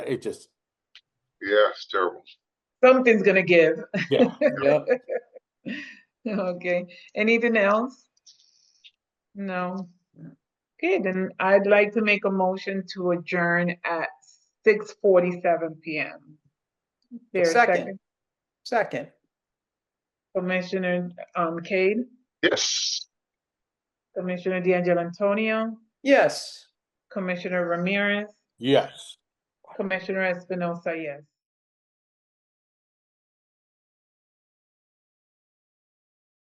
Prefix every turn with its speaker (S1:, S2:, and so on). S1: It just,
S2: Yeah, it's terrible.
S3: Something's gonna give.
S1: yeah, yeah.
S3: Okay, anything else? No. Okay, then I'd like to make a motion to adjourn at six forty-seven PM. There a
S4: Second. Second,
S3: Commissioner, um, Cade,
S2: Yes.
S3: Commissioner D'Angelo Antonio,
S4: yes.
S3: Commissioner Ramirez,
S1: yes.
S3: Commissioner Espinosa, yes.